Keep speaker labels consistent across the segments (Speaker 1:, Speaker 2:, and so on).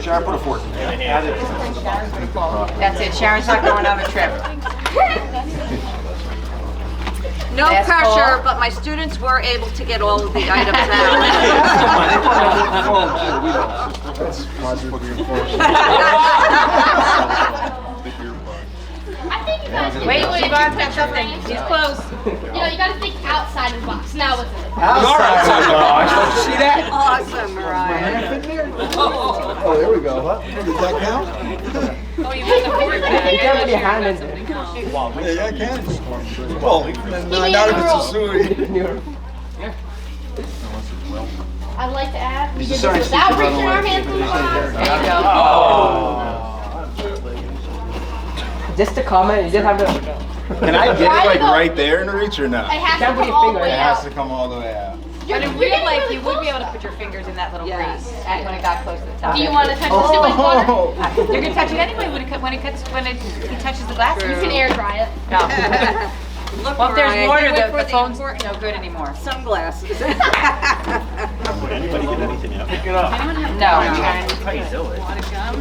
Speaker 1: Sharon, put a fork in there. Add it.
Speaker 2: That's it, Sharon's not going on a trip.
Speaker 3: No
Speaker 2: Last call.
Speaker 3: pressure, but my students were able to get all of the items
Speaker 1: They put it on the phone, too.
Speaker 3: out.
Speaker 1: We don't. That's
Speaker 4: I think you guys.
Speaker 2: Wait,
Speaker 4: can-
Speaker 2: she bought that something, she's close.
Speaker 4: You know, you gotta think outside of the box. Now what's in it?
Speaker 1: Outside the box. Don't you see that?
Speaker 3: Awesome, Mariah.
Speaker 5: Oh, there we go. Does that count? Yeah, yeah, I can. Well,
Speaker 4: Maybe
Speaker 5: not
Speaker 4: in
Speaker 5: if it's a
Speaker 4: the roll.
Speaker 5: suit.
Speaker 4: I'd like to add, we
Speaker 1: He's
Speaker 4: did this
Speaker 1: a science
Speaker 4: without
Speaker 1: teacher, by the
Speaker 4: reaching our
Speaker 1: way.
Speaker 4: hands in the box.
Speaker 2: There you go.
Speaker 6: Just a comment, you just have to.
Speaker 5: Can I get it like right there in the reach or
Speaker 4: It
Speaker 5: not?
Speaker 4: has to
Speaker 6: Can't put
Speaker 4: come
Speaker 6: your
Speaker 4: all the
Speaker 6: finger in
Speaker 4: way
Speaker 5: It
Speaker 6: it.
Speaker 5: has
Speaker 4: out.
Speaker 5: to come all the way out.
Speaker 4: You're-
Speaker 2: But in
Speaker 4: you're
Speaker 2: real
Speaker 4: getting
Speaker 2: life,
Speaker 4: really
Speaker 2: you would be able
Speaker 4: close.
Speaker 2: to put your fingers in that little
Speaker 3: Yes.
Speaker 2: grease, at- when it got close to the top.
Speaker 4: Do you wanna touch the sip of water?
Speaker 2: You're gonna touch it anyway when it, co- when it cuts, when it, he touches the glass.
Speaker 4: You can air dry it.
Speaker 2: No.
Speaker 3: Look,
Speaker 2: Well, if
Speaker 3: Mariah,
Speaker 2: there's
Speaker 3: you
Speaker 2: water,
Speaker 3: went
Speaker 2: the
Speaker 3: for
Speaker 2: the phone's
Speaker 3: important
Speaker 2: no good anymore.
Speaker 3: Sunglasses.
Speaker 7: Anybody get anything out?
Speaker 2: No, Sharon.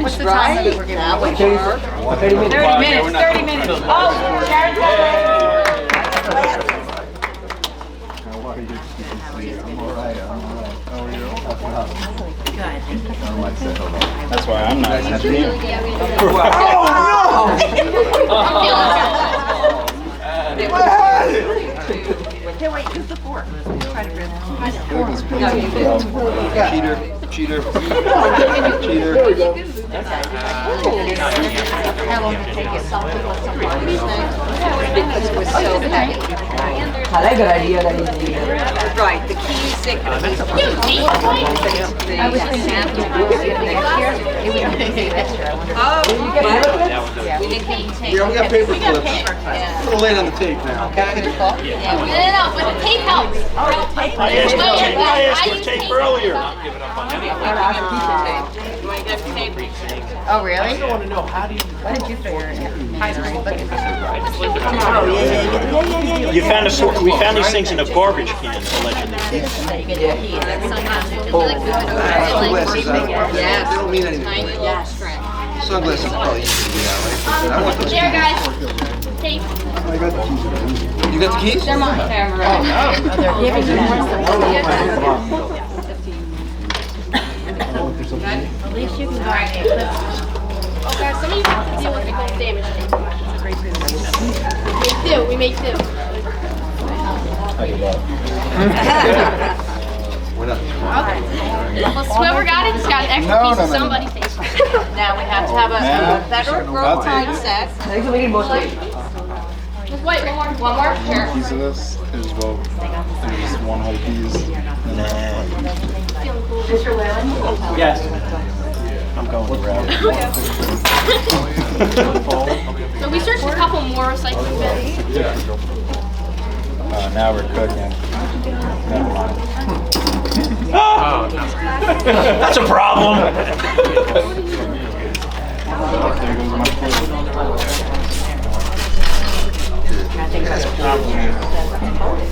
Speaker 2: What's the time that we're giving?
Speaker 3: Now we are.
Speaker 5: Thirty
Speaker 2: Thirty minutes, thirty minutes. Oh, Sharon's got it.
Speaker 5: I'm all right, I'm all right. How are you? Good. I'm like, said hello. That's why I'm not happy.
Speaker 4: Yeah, we do.
Speaker 5: Oh,
Speaker 4: I'm feeling it.
Speaker 5: no! I had it!
Speaker 3: Here, wait, use the fork. Try to grab it.
Speaker 5: Look at this place. Cheater, cheater, cheater. There we go.
Speaker 6: I like the idea that you did it.
Speaker 3: Right, the keys, they
Speaker 1: Uh,
Speaker 3: could at least.
Speaker 2: I was thinking if we do it next year, it would be easy this year. I wonder-
Speaker 3: Oh,
Speaker 2: Yeah.
Speaker 3: we didn't
Speaker 1: Yeah, we got paper clips. Put a lid on the tape now, okay?
Speaker 4: No, no, no, but the tape helps.
Speaker 7: I asked for tape, I asked for tape earlier.
Speaker 2: Oh, really? I want to know, how do you? What did you figure in high school? Look at this.
Speaker 7: You found a sort, we found these things in a garbage can allegedly.
Speaker 1: Sunglasses, I don't,
Speaker 3: Yes.
Speaker 1: they don't mean anything.
Speaker 3: Yes.
Speaker 1: Sunglasses oh, are probably easy to get out, right? I want those.
Speaker 4: There, guys. Tape.
Speaker 5: I got the keys.
Speaker 1: You got the keys? Oh, They're mine.
Speaker 4: Oh, guys, some of you have to deal with the gold damage tape. Make do, we make do.
Speaker 1: What up?
Speaker 4: Well, whoever got it just got an extra
Speaker 5: No, no,
Speaker 4: piece of
Speaker 5: no, no.
Speaker 4: somebody's tape.
Speaker 3: Now we
Speaker 1: Oh,
Speaker 3: have to have a- a
Speaker 5: Man.
Speaker 3: better growth mindset.
Speaker 6: Thanks for making most of it.
Speaker 4: Just wait, one more, one more, sure.
Speaker 5: piece of this is well, there's one whole piece. And then,
Speaker 7: Yes. I'm going to
Speaker 4: So we searched a couple more recycling bins.
Speaker 5: uh, now we're cooking. Never mind.
Speaker 7: That's a problem.
Speaker 5: There goes my foot.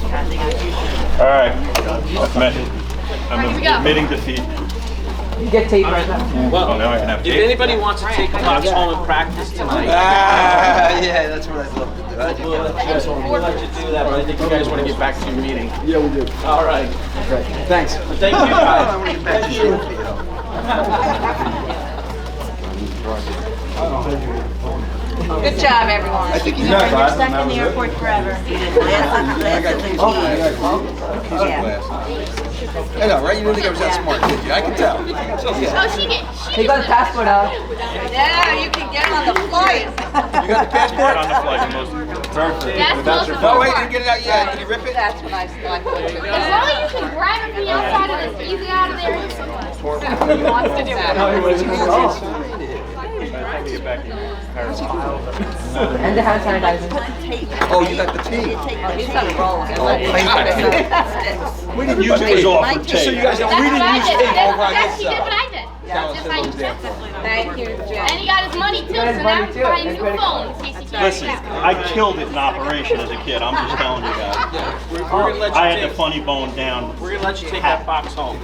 Speaker 7: All right. Admit-
Speaker 4: Here we go.
Speaker 7: I'm admitting defeat.
Speaker 6: You get tape right now.
Speaker 7: Well, now I can have
Speaker 8: If
Speaker 7: tape.
Speaker 8: anybody wants to take a box home and practice tonight,
Speaker 1: Ah, yeah, that's what I'd love to do. How'd you
Speaker 8: we'll
Speaker 1: get
Speaker 8: let you, we'll let you do that, but I think you guys want to get back to your meeting.
Speaker 5: Yeah, we do.
Speaker 8: All right.
Speaker 1: Thanks.
Speaker 8: Thank you,
Speaker 1: I want
Speaker 8: guys.
Speaker 1: to get back to you.
Speaker 3: Good job, everyone.
Speaker 1: I think you
Speaker 5: Yeah,
Speaker 1: got
Speaker 5: but I don't know.
Speaker 1: I got keys.
Speaker 5: Oh, I got keys.
Speaker 1: Keys and glasses. I know, right? You didn't think I was that smart, did you? I can tell. Yeah.
Speaker 4: Oh, she did,
Speaker 6: You
Speaker 4: she did.
Speaker 6: got a passport out.
Speaker 3: Yeah, you can get on the flight.
Speaker 1: You got the
Speaker 7: Get on the
Speaker 1: passport?
Speaker 7: flight, most
Speaker 4: That's most of
Speaker 1: Oh,
Speaker 4: the
Speaker 1: wait, you
Speaker 4: part.
Speaker 1: didn't get it out yet. Can you rip it?
Speaker 3: That's what I thought. too.
Speaker 4: As long as you can grab it from the outside of this, easy out of there.
Speaker 6: And the hand sanitizer.
Speaker 1: Oh, you got the tea.
Speaker 3: He's on a roll.
Speaker 1: We didn't
Speaker 7: But it was offered tape.
Speaker 1: So you guys know,
Speaker 4: That's
Speaker 1: we
Speaker 4: what
Speaker 1: didn't
Speaker 4: I
Speaker 1: use
Speaker 4: did.
Speaker 1: tape
Speaker 4: That's-
Speaker 1: over on
Speaker 4: That's,
Speaker 1: this
Speaker 4: he did what
Speaker 1: side.
Speaker 4: I did. That's how you did it.
Speaker 3: Thank you, Jim.
Speaker 4: And he got his money too, so
Speaker 6: his
Speaker 4: now
Speaker 6: money
Speaker 4: he's
Speaker 6: too.
Speaker 4: buying a
Speaker 6: That's
Speaker 4: new
Speaker 6: what I-
Speaker 4: phone in case he tries
Speaker 7: Listen,
Speaker 4: it out.
Speaker 7: I killed it in operation as a kid. I'm just telling you guys.
Speaker 8: We're going to let
Speaker 7: I had
Speaker 8: you
Speaker 7: the
Speaker 8: take,
Speaker 7: funny bone down
Speaker 8: we're going to let you take that box home.